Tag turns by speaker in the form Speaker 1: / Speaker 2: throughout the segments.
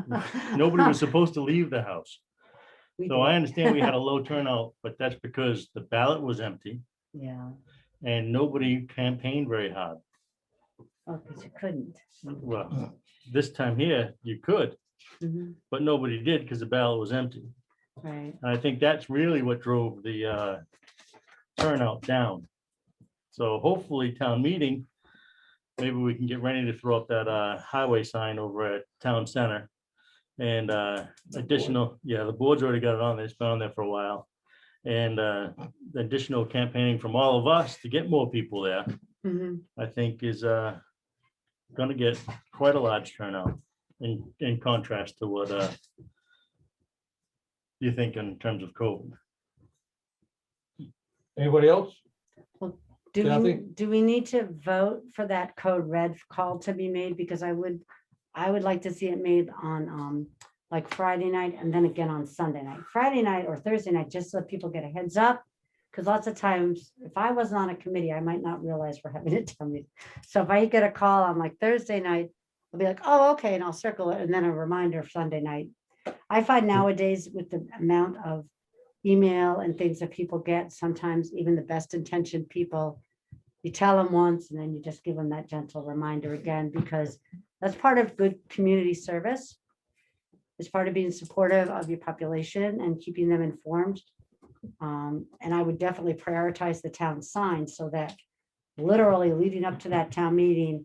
Speaker 1: Nobody was supposed to leave the house.
Speaker 2: We
Speaker 1: So I
Speaker 2: did,
Speaker 1: understand we had a low turnout, but that's because the ballot was empty
Speaker 2: Yeah,
Speaker 1: and nobody campaigned very hard.
Speaker 2: oh, because you couldn't.
Speaker 1: Well, this time here, you could,
Speaker 2: Mhm,
Speaker 1: but nobody did because the ballot was empty.
Speaker 2: Right,
Speaker 1: And I think that's really what drove the uh, turnout down. So hopefully town meeting, maybe we can get ready to throw up that uh, highway sign over at town center. And uh, additional, yeah, the board's already got it on, there. it's been on there for a while. And uh, the additional campaigning from all of us to get more people there,
Speaker 2: Mhm,
Speaker 1: I think is uh, gonna get quite a large turnout in, in contrast to what uh, you think in terms of COVID.
Speaker 3: Anybody else?
Speaker 2: do we,
Speaker 3: Kathy?
Speaker 2: do we need to vote for that code red call to be made, because I would, I would like to see it made on, um, like Friday night and then again on Sunday night, Friday night or Thursday night, just so people get a heads up. Because lots of times, if I wasn't on a committee, I might not realize we're having a town meeting, so if I get a call on like Thursday night, I'll be like, oh, okay, and I'll circle it, and then a reminder of Sunday night. I find nowadays with the amount of email and things that people get, sometimes even the best intentioned people, you tell them once and then you just give them that gentle reminder again, because that's part of good community service. It's part of being supportive of your population and keeping them informed. Um, and I would definitely prioritize the town sign so that literally leading up to that town meeting,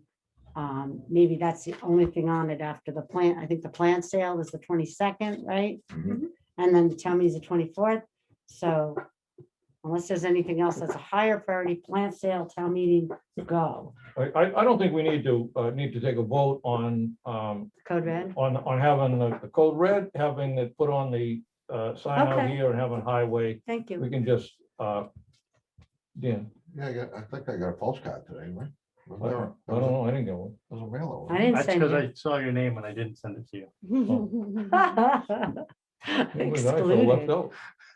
Speaker 2: um, maybe that's the only thing on it after the plant. I think the plant sale is the twenty-second, right? And then the town meeting's the twenty-fourth, so unless there's anything else that's a higher priority, plant sale, town meeting, go.
Speaker 3: I, I, I don't think we need to, uh, need to take a vote on, um,
Speaker 2: Code red,
Speaker 3: on, on having the the code red, having it put on the, uh, sign out
Speaker 2: Okay.
Speaker 3: here and having highway.
Speaker 2: thank
Speaker 3: We
Speaker 2: you.
Speaker 3: can just, uh, Dan,
Speaker 4: Yeah, I got, I think I got a postcard today, right?
Speaker 3: I I don't know, I didn't get one.
Speaker 4: There's a mail.
Speaker 2: I
Speaker 4: order.
Speaker 2: didn't
Speaker 1: That's because
Speaker 2: send
Speaker 1: I saw your name and I didn't send it to you.
Speaker 2: you.
Speaker 5: oh.
Speaker 3: Maybe I feel left
Speaker 2: Excluded.
Speaker 3: out.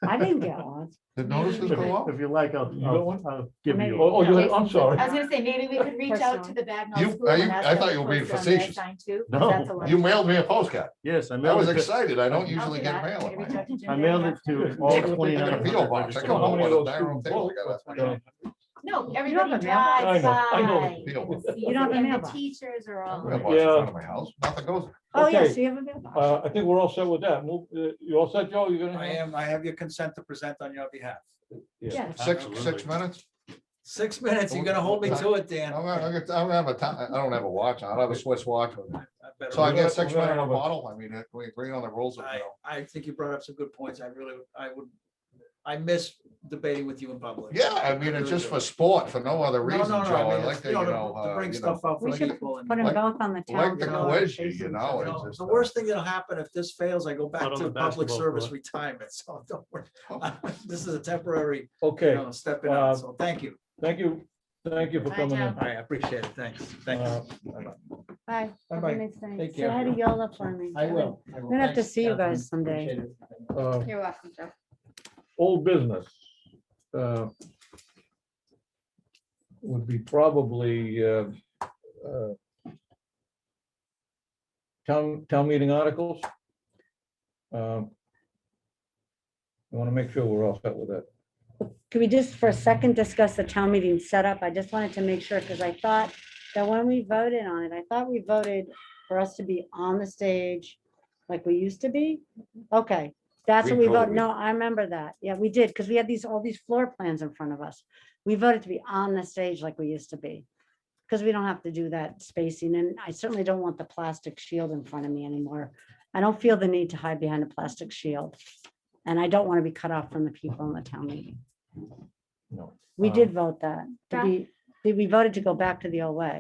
Speaker 2: I didn't get one.
Speaker 4: Did notices
Speaker 1: If
Speaker 4: go out?
Speaker 1: you- if you like, I'll,
Speaker 3: You got
Speaker 1: I'll
Speaker 3: one?
Speaker 1: I'll give
Speaker 2: Maybe.
Speaker 1: you.
Speaker 3: Oh,
Speaker 1: one.
Speaker 3: oh, you,
Speaker 6: Yeah.
Speaker 3: I'm sorry.
Speaker 6: I was gonna say, maybe we could reach out to the
Speaker 4: You-
Speaker 6: Bagnell School.
Speaker 4: are
Speaker 6: and
Speaker 4: you-
Speaker 6: ask
Speaker 4: I
Speaker 6: them
Speaker 4: thought
Speaker 6: to
Speaker 4: you were being
Speaker 6: post on their
Speaker 4: facetious.
Speaker 6: sign too,
Speaker 1: No.
Speaker 6: that's allowed.
Speaker 4: You mailed me a postcard.
Speaker 1: Yes, I
Speaker 4: I
Speaker 1: mailed
Speaker 4: was
Speaker 1: it. to-
Speaker 4: excited. I don't
Speaker 6: I'll
Speaker 4: usually
Speaker 6: do
Speaker 4: get
Speaker 6: that.
Speaker 4: mail.
Speaker 6: Maybe
Speaker 4: in my-
Speaker 6: reach out to Jim
Speaker 1: I
Speaker 6: Day
Speaker 1: mailed
Speaker 6: and
Speaker 1: it
Speaker 6: ask them.
Speaker 1: to
Speaker 3: I
Speaker 1: all
Speaker 3: got a
Speaker 1: twenty-nine.
Speaker 4: P.O. box. I
Speaker 3: I don't know how many of those
Speaker 4: Dial up there,
Speaker 3: people
Speaker 4: we got
Speaker 3: vote,
Speaker 4: that.
Speaker 3: but, uh,
Speaker 6: No,
Speaker 2: don't
Speaker 6: everybody
Speaker 2: have a mailbox.
Speaker 6: drives
Speaker 3: I know, I
Speaker 6: by.
Speaker 3: know.
Speaker 4: P.O. box.
Speaker 2: You don't have a
Speaker 6: And the
Speaker 2: mailbox.
Speaker 6: Teachers are all.
Speaker 4: Mailbox
Speaker 6: over.
Speaker 4: in
Speaker 3: Yeah.
Speaker 4: front of my house. Nothing goes.
Speaker 2: Oh,
Speaker 3: Okay.
Speaker 2: yes, you have a mailbox.
Speaker 3: Uh, I think we're all set with that. Move, uh, you all set, Joe? You're gonna?
Speaker 5: I am, I have your consent to present on your behalf.
Speaker 2: Yes.
Speaker 4: Six, six
Speaker 1: Absolutely.
Speaker 4: minutes?
Speaker 5: Six minutes, you're gonna hold me to it, Dan.
Speaker 4: I'm gonna- I'm gonna- I don't have a time. I don't have a watch. I don't have a Swiss watch. with me.
Speaker 5: I better-
Speaker 4: So I
Speaker 3: We're gonna-
Speaker 4: get six
Speaker 3: we're gonna
Speaker 4: minute
Speaker 3: have a-
Speaker 4: bottle. I mean, if we agree on the rules. of
Speaker 5: I,
Speaker 4: mail.
Speaker 5: I think you brought up some good points. I really, I would, I miss debating with you in public.
Speaker 4: Yeah, I mean, it's
Speaker 5: really
Speaker 4: just
Speaker 5: do.
Speaker 4: for sport, for no other
Speaker 5: No,
Speaker 4: reason,
Speaker 5: no,
Speaker 4: Joe.
Speaker 5: no, I
Speaker 4: I
Speaker 5: mean,
Speaker 4: like
Speaker 5: it's,
Speaker 4: to,
Speaker 5: you
Speaker 4: you
Speaker 5: know,
Speaker 4: know.
Speaker 5: to- to
Speaker 4: uh, you
Speaker 5: bring
Speaker 4: know,
Speaker 5: stuff out
Speaker 2: We
Speaker 5: for
Speaker 2: should
Speaker 5: people. and-
Speaker 2: Put them
Speaker 4: Like-
Speaker 2: both on the town.
Speaker 4: like the
Speaker 2: floor,
Speaker 4: cohesion, you
Speaker 2: facing
Speaker 4: know,
Speaker 2: town.
Speaker 4: it's
Speaker 5: No,
Speaker 4: just,
Speaker 5: The
Speaker 4: uh,
Speaker 5: worst thing that'll happen if this fails, I go
Speaker 1: Put
Speaker 5: back
Speaker 1: on the
Speaker 5: to public
Speaker 1: basketball
Speaker 5: service
Speaker 1: court.
Speaker 5: retirement, so don't worry.
Speaker 4: Oh.
Speaker 5: This is a temporary, you
Speaker 3: Okay,
Speaker 5: know, stepping
Speaker 3: uh,
Speaker 5: out, so thank you.
Speaker 3: thank you. Thank you for
Speaker 6: Bye,
Speaker 3: coming
Speaker 6: Joe.
Speaker 3: in. Uh,
Speaker 5: All right, I appreciate it, thanks, thanks.
Speaker 2: Bye. Have a
Speaker 5: Bye-bye.
Speaker 2: nice night.
Speaker 5: Take
Speaker 2: Say
Speaker 5: care.
Speaker 2: hi to Yola for me.
Speaker 5: I will.
Speaker 2: We'll have to
Speaker 5: Thanks,
Speaker 2: see you
Speaker 5: Catherine.
Speaker 2: guys someday.
Speaker 5: Appreciate it.
Speaker 3: Uh,
Speaker 6: You're welcome, Joe.
Speaker 3: old business. uh, Would be probably uh, uh, town, town meeting articles. Um, I want to make sure we're all set with that.
Speaker 2: Can we just for a second discuss the town meeting setup? I just wanted to make sure, because I thought that when we voted on it, I thought we voted for us to be on the stage like we used to be. Okay, that's what
Speaker 4: We
Speaker 2: we voted.
Speaker 4: voted.
Speaker 2: No, I remember that. Yeah, we did, because we had these, all these floor plans in front of us. We voted to be on the stage like we used to be, because we don't have to do that spacing, and I certainly don't want the plastic shield in front of me anymore. I don't feel the need to hide behind a plastic shield, and I don't want to be cut off from the people in the town meeting.
Speaker 3: No.
Speaker 2: We
Speaker 3: Um,
Speaker 2: did vote that. to
Speaker 6: Yeah.
Speaker 2: be- We, we voted to go back to the old way.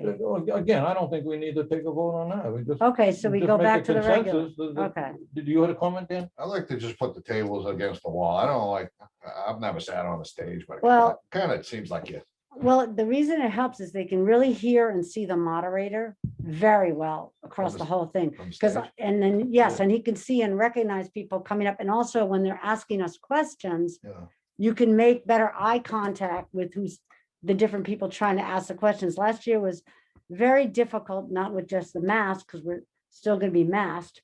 Speaker 3: Again, I don't think we need to take a vote on that. We just.
Speaker 2: Okay, so we
Speaker 3: just
Speaker 2: go
Speaker 3: make a
Speaker 2: back to the regular.
Speaker 3: consensus that- that-
Speaker 2: Okay,
Speaker 3: Did you have a comment, Dan?
Speaker 4: I like to just put the tables against the wall. I don't like, I- I've never sat on a stage, but it
Speaker 2: Well-
Speaker 4: kind of seems like you
Speaker 2: well, the reason it helps is they can really hear and see the moderator very well across the
Speaker 4: Understood.
Speaker 2: whole thing.
Speaker 4: from stage.
Speaker 2: Because, and then, yes, and he can see and recognize people coming up, and also when they're asking us questions,
Speaker 4: Yeah.
Speaker 2: you can make better eye contact with who's the different people trying to ask the questions. Last year was very difficult, not with just the mask, because we're still gonna be masked,